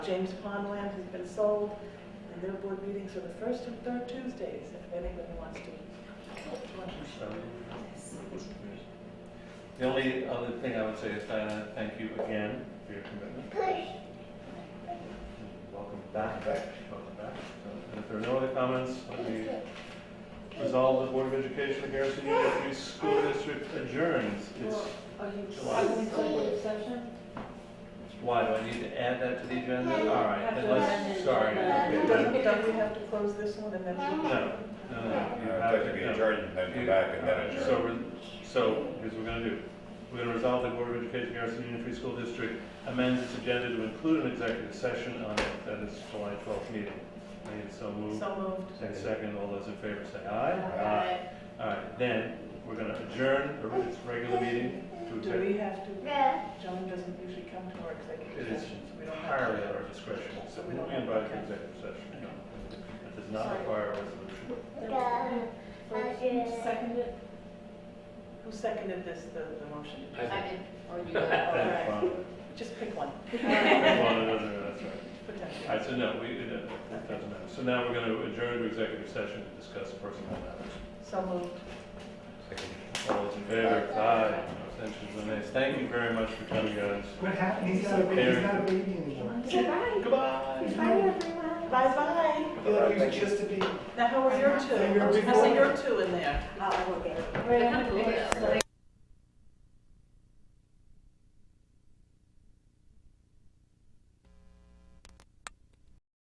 James Pond land has been sold, and their board meetings are the first and third Tuesdays, if anybody wants to. So, The only other thing I would say is Diana, thank you again for your commitment. Welcome back, welcome back. So, If there are no other comments, let me resolve the Board of Education of Garrison Union Free School District adjourns. It's, Are you July. having executive session? why, do I need to add that to the agenda? All right, Have to amend unless, it. sorry. okay. Doesn't, don't we have to close this one and then? No, no, no. you I'd have like to it, be no. adjourned and then come back and then adjourn. So, we're- so here's what we're gonna do. We're gonna resolve the Board of Education Garrison Union Free School District amends its agenda to include an executive session on it that is July twelfth meeting. And so move, So moved. Uh, and second, all those in favor say aye. Aye. All right, then we're gonna adjourn the re- its regular meeting to Do executive. we have to, John doesn't usually come to our It executive is sessions. We don't have entirely to. at our discretion, so we will be invited to executive session. no. It does not require a resolution. First, second it? Who seconded this, the, the motion? I did. Or you got That's fine. Just pick one, it? Well, it doesn't- that's right. All potentially. right, so no, we, it it doesn't matter. So now we're going to adjourn to executive session to discuss personnel matters. So moved. All those in favor? Aye. No Abstentions, no nays. Thank you very much for coming, guys. What happened? He's not a baby, he's not a baby anymore. Goodbye. Goodbye. Bye, everyone. Bye-bye. I feel like he was just a baby. Now, how are your two? Your big I see one. your two in there. Wait, I'm gonna go.